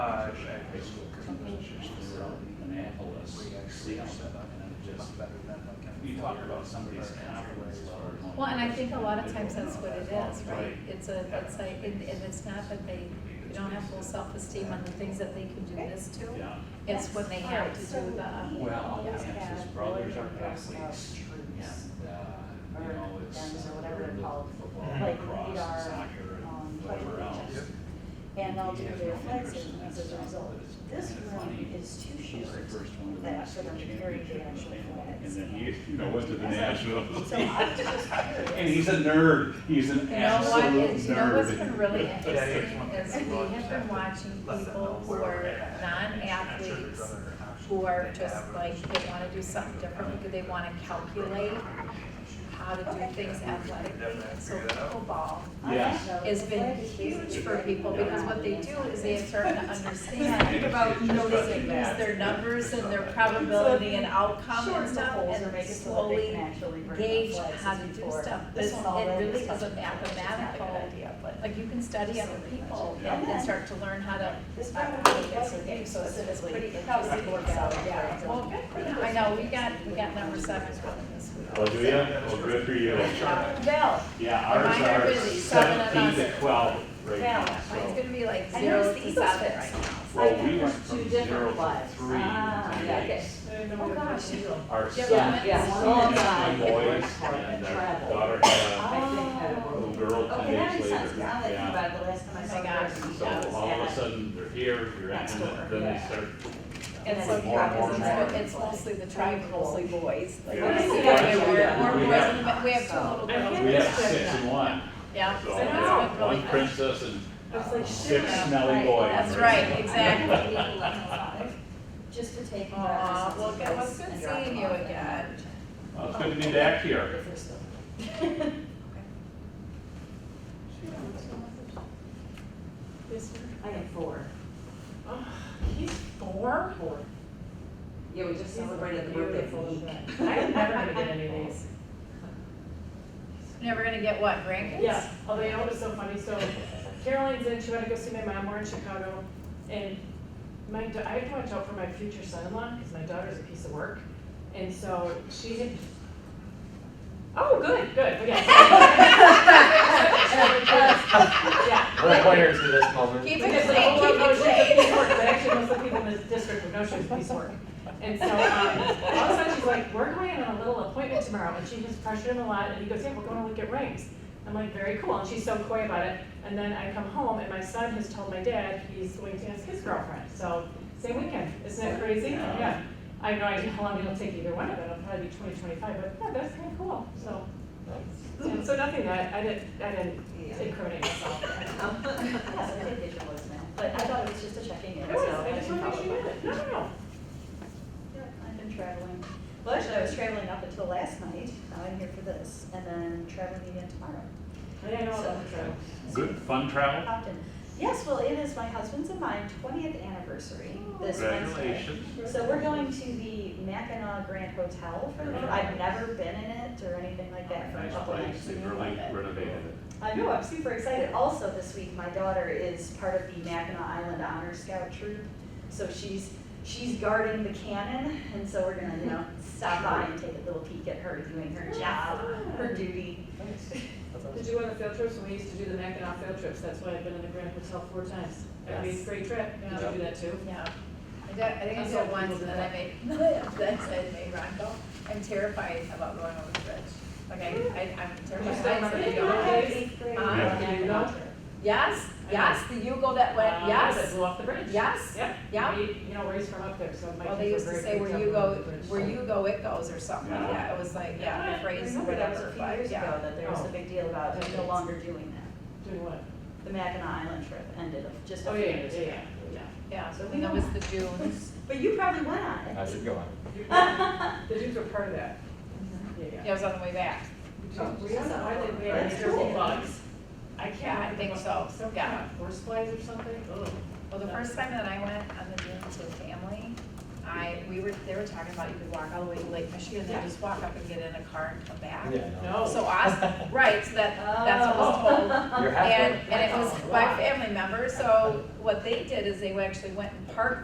high school campus, just around Annapolis, see how that, and it just, you talk about somebody's confidence level. Well, and I think a lot of times that's what it is, right? Right. It's a, it's like, and, and it's not that they, they don't have full self-esteem on the things that they can do this to. Yeah. It's when they have to do the, Well, and Always his have brothers are warriors athletes, of and, uh, you or know, guns it's. or whatever they're called, Football, like lacrosse, we are, soccer, um, and whatever playing else. just- And they'll do He has their no interest flexing in as that a stuff, result. but it's This kinda funny. room is too He's short the first one to win that the for them to state carry the championship in the actual family. flags. And then you, you know, went to the Nationals. So I'm just curious. And he's a nerd, he's an you know what, absolute is- you know what's been nerd. really Yeah, yeah, it's interesting one is thing. we have been watching Less than people who where are we're at. I'm sure non-athletes, there's other options who are they just have. like, they wanna do something different, because they wanna calculate how to do things athletically. So pickleball I Yes. don't know. has The been flag is huge basically for people, like- because what they do is they start to Think understand about those noticing things, their numbers and their probability and outcome Shorten and the stuff, poles or and make it so that they slowly can actually bring the gauge flags how as to do before. stuff. This This one one, it already really is is a touching, which is not a good mathematical, idea, but- like you can study other people Yeah. and then start to learn how to. uh, This how to one play really this wasn't game, so it's specifically pretty like healthy. this workout, yeah. So, Well, good for them. I know, we got, we got number seven coming this week. Well, do you? Well, good for you. Dr. Bell, Yeah, Mine ours are are busy, seven and seventeen under. to twelve right Bell, now, mine's so. gonna be like I zero noticed the to Eagles seven fit right right now. Well, I we think went there's from two zero different to flags. three Ah, in two yeah, okay. days. Oh, gosh. Our Yeah, son, but- Yeah. my boys, and our daughter had I think had a a little- little girl two Ah. Okay, that days makes later. sense, 'cause now that I think Yeah. about it, the last time I Oh saw my gosh. the So girls, all of yeah. a sudden, they're here, you're at, Next and door, then they yeah. start. It's so More and more because and more. it's, it's mostly the tribe, mostly boys. Like, Yeah. what is it? Yeah. Okay, we're- We we're have- boys, but we have two little girls. We have six and one, Yeah. so So yeah, it's been one really good. princess and It's like, six shit. smelly boys. That's right, exactly. Just to take. Aw, well, good, well, it's good seeing you again. Well, It's good to be back here. If you're still. I am four. He's four? Four. Yeah, we just celebrated the birthday of the week. I'm never gonna get any of these. Never gonna get what, grandkids? Yeah, although you know it was so funny, so Caroline's in, she went to go see my mom, we're in Chicago, and my, da- I had to watch out for my future son-in-law, because my daughter's a piece of work, and so she had, oh, good, good, okay. Yeah. Required to this moment. Keep Because it the whole clean, world keep it knows oh, she's a clean. piece of work, but actually most of the people in this district would know she was a piece of work. And so, um, all of a sudden she's like, we're going on a little appointment tomorrow, and she just pressured him a lot, and he goes, yeah, we're going to look at rings. I'm like, very cool, and she's so coy about it, and then I come home, and my son has told my dad he's going to ask his girlfriend, so, same weekend, isn't that crazy? Yeah. Yeah, I have no idea how long it'll take either one of them, it'll probably be twenty, twenty-five, but, yeah, that's kinda cool, so. yeah, So nothing that, I didn't, I didn't incriminate myself. Yes, I think they should listen, but I thought it was just a checking in, It so. was, I just didn't wanted to make sure follow you up. did it. No, no, no. Yeah, I've been traveling. Well, actually, I was traveling up until last night. Now I'm here for this, and then traveling again tomorrow. Yeah, no, So- that's true. Good, fun travel? Often. Yes, well, it is my husband's and my twentieth anniversary this Wednesday. Congratulations. So we're going to the Mackinac Grand Hotel for the, I've never been in it or anything like that for a Nice couple place, nights. they and I really love it. renovated it. I know, I'm super excited. Also, this week, my daughter is part of the Mackinac Island Honor Scout Troop. So she's, she's guarding the cannon, and so we're gonna, you know, stop by and take a little peek at her doing her job, her duty. Did you go on the field trips? When we used to do the Mackinac field trips, that's why I've been in the Grand Hotel four times. Every Yes. great trip, did you do that too? Yeah. I did, I think I That's did it what once people and do. then I made, then I made Rondo. I'm terrified about going over the bridge. Like I, I, I'm You still terrified. remember the Yeah. Yule Yeah. Mackinac Trip. Yes, I yes, the Yugo that went, Uh, That yes, blew off the bridge. yes. Yep. Yeah. We- You know, where he's from up there, so my Well, they kids used were to very say freaked where out you when we go, went to the bridge. where you go, it goes or something like Yeah. that. It was like, yeah, the Yeah, I phrase or remember that was a whatever, few but years ago yeah. that there was a big deal about no longer doing that. Doing what? The Mackinac Island trip ended just a Oh, few yeah, yeah, years yeah, ago. yeah, yeah. Yeah, So we and that know. was the dunes. But you probably went on it. I should go on. The dudes were part of that. Yeah, yeah. Yeah, it was on the way back. Oh, We don't know why they, we had That's terrible cool. bugs. I Yeah, I can't. remember think what- so. Some Yeah. kind of horse flies or something, ugh. Well, the first time that I went on the dunes with family, I, we were, they were talking about you could walk all the way to Lake Michigan, then just walk up and get in a car and come back. Oh. No. So I, right, so that, Oh. that's what I Oh. was told. You're halfway. And, and it was by family members, so what they did is they actually went and parked